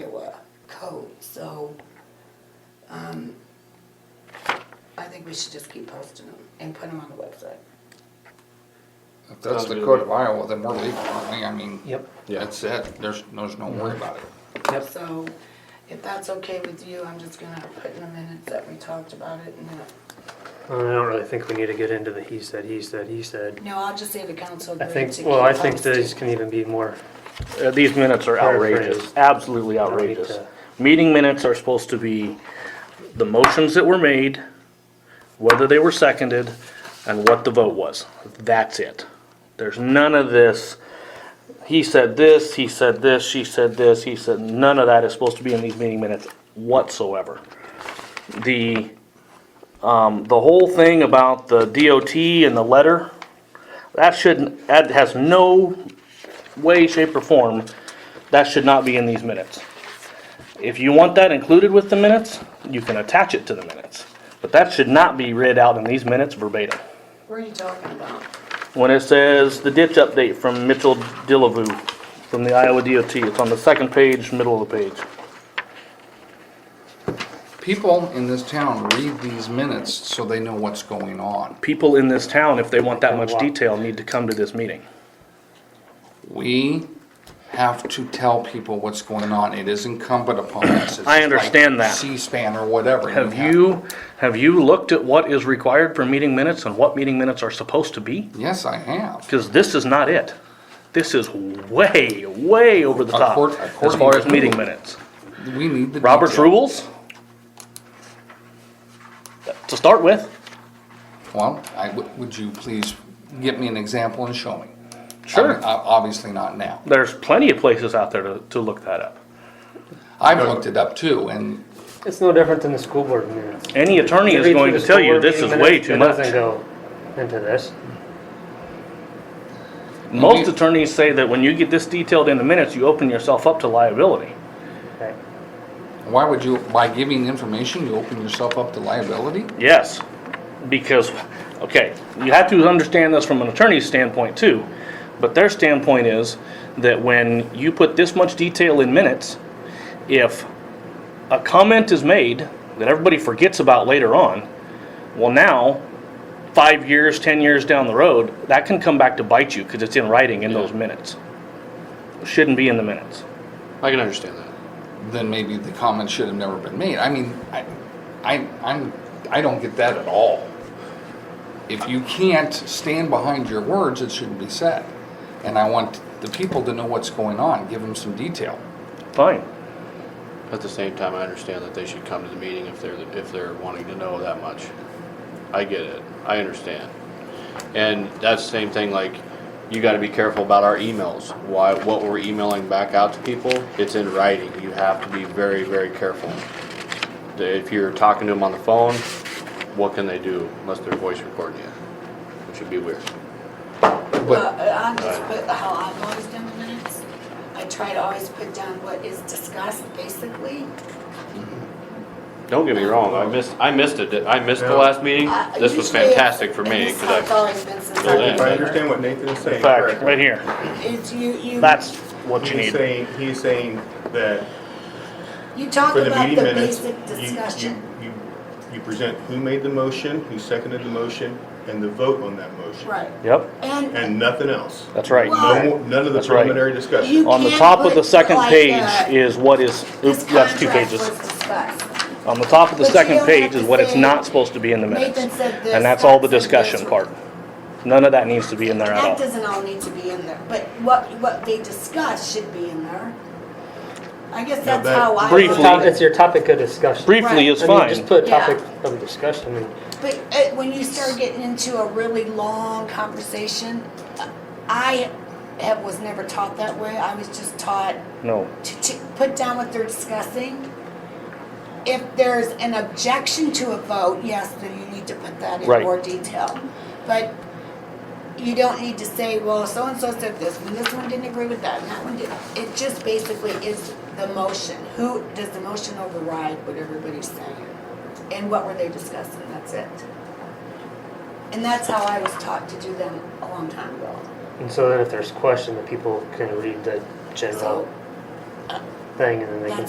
Iowa code, so, um, I think we should just keep posting them and put them on the website. If that's the code of Iowa, then we're legal, aren't we? I mean. Yep. Yeah. That's it. There's, there's no worry about it. Yep. So, if that's okay with you, I'm just gonna put in the minutes that we talked about it and that. I don't really think we need to get into the he said, he said, he said. No, I'll just say the council I agreed to think, keep well, I think posting. these can even be more, Uh, These minutes are outrageous, Paraphrase. absolutely don't need outrageous. to- Meeting minutes are supposed to be the motions that were made, whether they were seconded, and what the vote was. That's it. There's none of this, he said this, he said this, she said this, he said, none of that is supposed to be in these meeting minutes whatsoever. The, um, the whole thing about the DOT and the letter, that shouldn't, that has no way, shape, or form, that should not be in these minutes. If you want that included with the minutes, you can attach it to the minutes. But that should not be read out in these minutes verbatim. What are you talking about? When it says the ditch update from Mitchell Dillavue from the Iowa DOT, it's on the second page, middle of the page. People in this town read these minutes so they know what's going on. People in this town, if they want that much Wow. detail, need to come to this meeting. We have to tell people what's going on. It is incumbent upon us. It's I understand like that. C-SPAN or whatever. Have you, have you looked at what is required for meeting minutes and what meeting minutes are supposed to be? Yes, I have. Because this is not it. This is way, way over the top Accord- as according far as to meeting who? minutes. We need the. Robert's detail. rules? To start with, Well, I, w- would you please get me an example and show me? Sure. I'm- I'm Obviously not now. there's plenty of places out there to, to look that up. I've looked it up too and it's no different than the school board minutes. Any attorney You is read going through to the tell school you board this is meeting way minutes, too it much. doesn't go into this. Most You- attorneys say that when you get this detailed in the minutes, you open yourself up to liability. Okay. Why would you, by giving information, you open yourself up to liability? Yes, because, okay, you have to understand this from an attorney's standpoint too, but their standpoint is that when you put this much detail in minutes, if a comment is made that everybody forgets about later on, well now, five years, ten years down the road, that can come back to bite you because it's in writing in those minutes. Shouldn't be in the minutes. I can understand that. Then maybe the comment should have never been made. I mean, I, I, I'm, I don't get that at all. If you can't stand behind your words, it shouldn't be said. And I want the people to know what's going on, give them some detail. Fine. At the same time, I understand that they should come to the meeting if they're, if they're wanting to know that much. I get it. I understand. And that's the same thing, like, you gotta be careful about our emails. Why, what we're emailing back out to people, it's in writing. You have to be very, very careful. If you're talking to them on the phone, what can they do unless they're voice recording you? Which would be weird. Well, But I just put how I've always done the minutes. I try to always put down what is discussed, basically. Don't get me wrong, I missed, I missed it. I missed the last meeting. Uh, This was usually it's- fantastic for and me, this cause how It's I, always been since Till I've then. If I been here. understand what Nathan is saying In fact, right correctly, here, It's you, you. that's what you he's need. saying, he's saying that You talk for the about meeting the minutes, basic you, discussion. you, you, you present who made the motion, who seconded the motion, and the vote on that motion. Right. Yep, And And nothing else. that's right. Well, No, more- none of the That's right. preliminary discussion. you On the can't top of the put second like page that, is what is, "This oops, that's two contract pages. was discussed." On the top of the But you second don't have page to is what it's say, not supposed to be in the minutes. Nathan said this, And that's all the Scott said discussion this. part. None of that needs to be in there That at all. doesn't all need to be in there, but what, what they discuss should be in there. I guess Yeah, that's but- how I. Briefly. look at it. It's your topic of discussion. Briefly is I mean, Just fine. put Yeah. topic of discussion and But uh, when you start getting into a really long conversation, uh, I have, was never taught that way. I was just taught No, to, to put down what they're discussing. If there's an objection to a vote, yes, then you need to put that in Right. more detail. But you don't need to say, well, so-and-so said this, and this one didn't agree with that, and that one did. It just basically is the motion. Who, does the motion override what everybody's saying? And what were they discussing? That's it. And that's how I was taught to do them a long time ago. And so then if there's question, the people can read the general So, thing and then they can That's